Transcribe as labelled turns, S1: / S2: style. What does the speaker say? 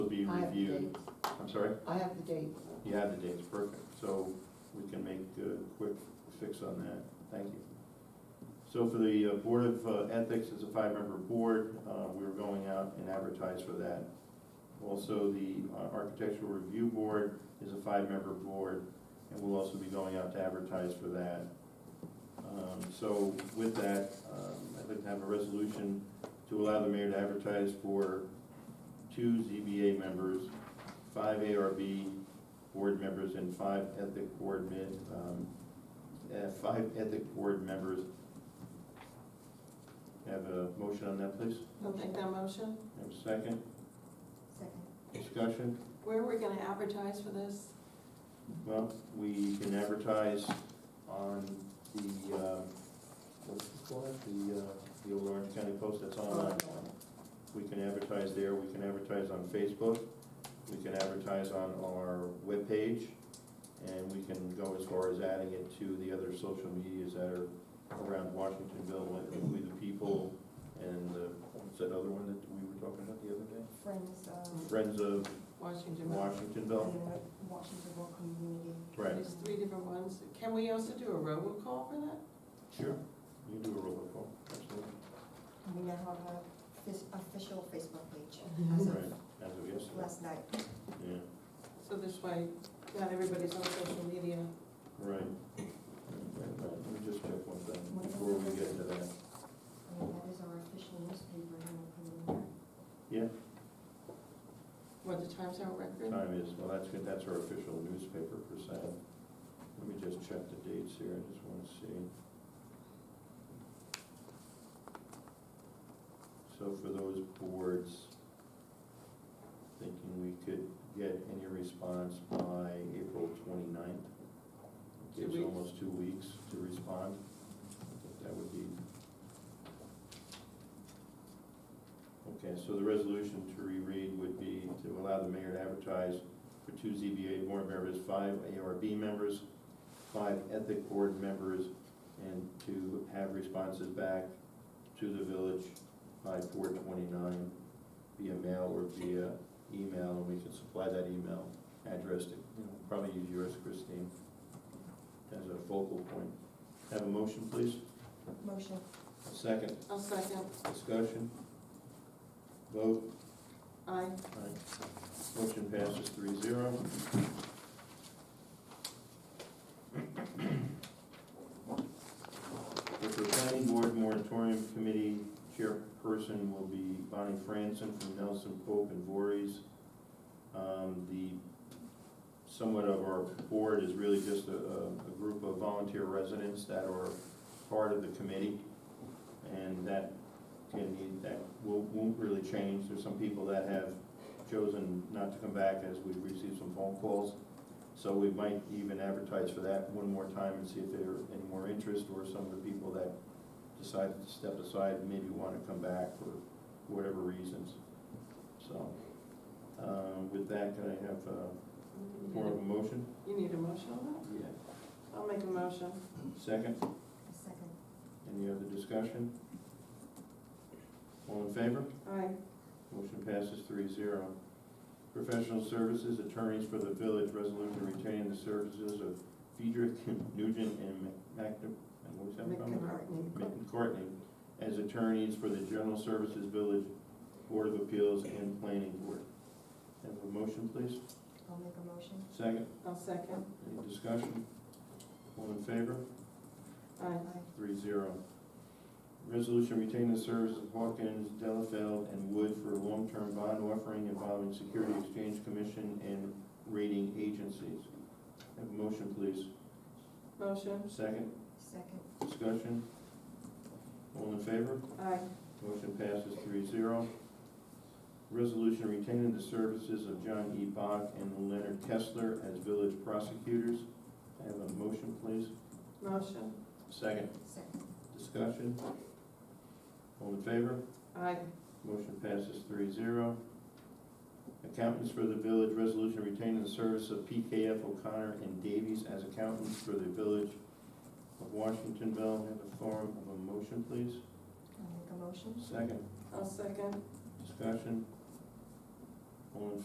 S1: have
S2: the
S1: you,
S2: dates.
S1: I'm sorry,
S2: I have the dates.
S1: you have the dates, perfect, so we can make a quick fix on that, thank you. So for the uh, Board of uh, Ethics, it's a five-member board, Uh, we're going out and advertise for that. Also, the uh, Architectural Review Board is a five-member board, and we'll also be going out to advertise for that. Um, So with that, um, I'd like to have a resolution to allow the mayor to advertise for two ZBA members, five ARB board members, and five ethic board men, um, uh, five ethic board members. Have a motion on that, please?
S2: I'll make that motion.
S1: Have a second?
S3: Second.
S1: Discussion?
S2: Where are we gonna advertise for this?
S1: Well, we can advertise on the, uh, what's it called, the, uh, the old Orange County Post that's online. We can advertise there, we can advertise on Facebook, we can advertise on our webpage, and we can go as far as adding it to the other social medias that are around Washingtonville, like We the People, and uh, what's that other one that we were talking about the other day?
S3: Friends um, of,
S1: Friends of
S2: Washington Mills.
S1: Washingtonville,
S3: Washingtonville community.
S1: right?
S2: There's three different ones. Can we also do a robocall for that?
S1: Sure. You do a roll call, absolutely.
S3: And we now have a fis- official Facebook page
S1: Mm-hmm.
S3: as of
S1: Right, as of yesterday,
S3: last night.
S1: yeah,
S2: So this way, not everybody's on social media.
S1: right. Right, right. Let me just check one thing before we get into that.
S3: I mean, that is our official newspaper in the community.
S2: What, the Times Herald Record?
S1: Time is, well, that's good, that's our official newspaper per se. Let me just check the dates here, I just want to see. So for those boards, thinking we could get any response by April 29th.
S2: Two
S1: Gives
S2: weeks.
S1: almost two weeks to respond. I think That would be. Okay, so the resolution to reread would be to allow the mayor to advertise for two ZBA board members, five ARB members, five ethic board members, and to have responses back to the village by four twenty-nine via mail or via email, and we can supply that email address to, you know, probably use yours, Christine, as a focal point. Have a motion, please?
S3: Motion,
S1: A second,
S2: I'll second.
S1: discussion? Vote?
S2: Aye.
S1: Aye. Motion passes three zero. With the planning board moratorium committee, chairperson will be Bonnie Franson from Nelson Pope and Voorhees. Um, The, somewhat of our board is really just a, a a group of volunteer residents that are part of the committee. And that can need, that won't, won't really change. There's some people that have chosen not to come back as we've received some phone calls. So we might even advertise for that one more time and see if there are any more interest or some of the people that decided to step aside maybe want to come back for whatever reasons. So, um, with that, can I have a form of a motion?
S2: You need a motion on
S1: Yeah.
S2: that? I'll make a motion.
S1: Second?
S3: a second.
S1: Any other discussion? All in favor?
S2: Aye.
S1: Motion passes three zero. Professional services, attorneys for the village, resolution retaining the services of Friedrich Nugent and McNab, and what's that from?
S2: McCartney.
S1: McCartney, as attorneys for the general services village, board of appeals, and planning board. Have a motion, please?
S3: I'll make a motion.
S1: Second,
S2: I'll second.
S1: any discussion? All in favor?
S2: Aye.
S3: Aye.
S1: Three zero. Resolution retaining the service of Hawkins, Delafield, and Wood for long-term bond offering involving Security Exchange Commission and rating agencies. Have a motion, please.
S2: Motion.
S1: Second,
S3: Second.
S1: discussion. All in favor?
S2: Aye.
S1: Motion passes three zero. Resolution retaining the services of John E. Bach and Leonard Kessler as village prosecutors. Have a motion, please.
S2: Motion.
S1: Second,
S3: Second.
S1: discussion. All in favor?
S2: Aye.
S1: Motion passes three zero. Accountants for the village, resolution retaining the service of PKF O'Connor and Davies as accountants for the village of Washingtonville. Have a form of a motion, please.
S3: I'll make a motion.
S1: Second,
S2: I'll second.
S1: discussion. All in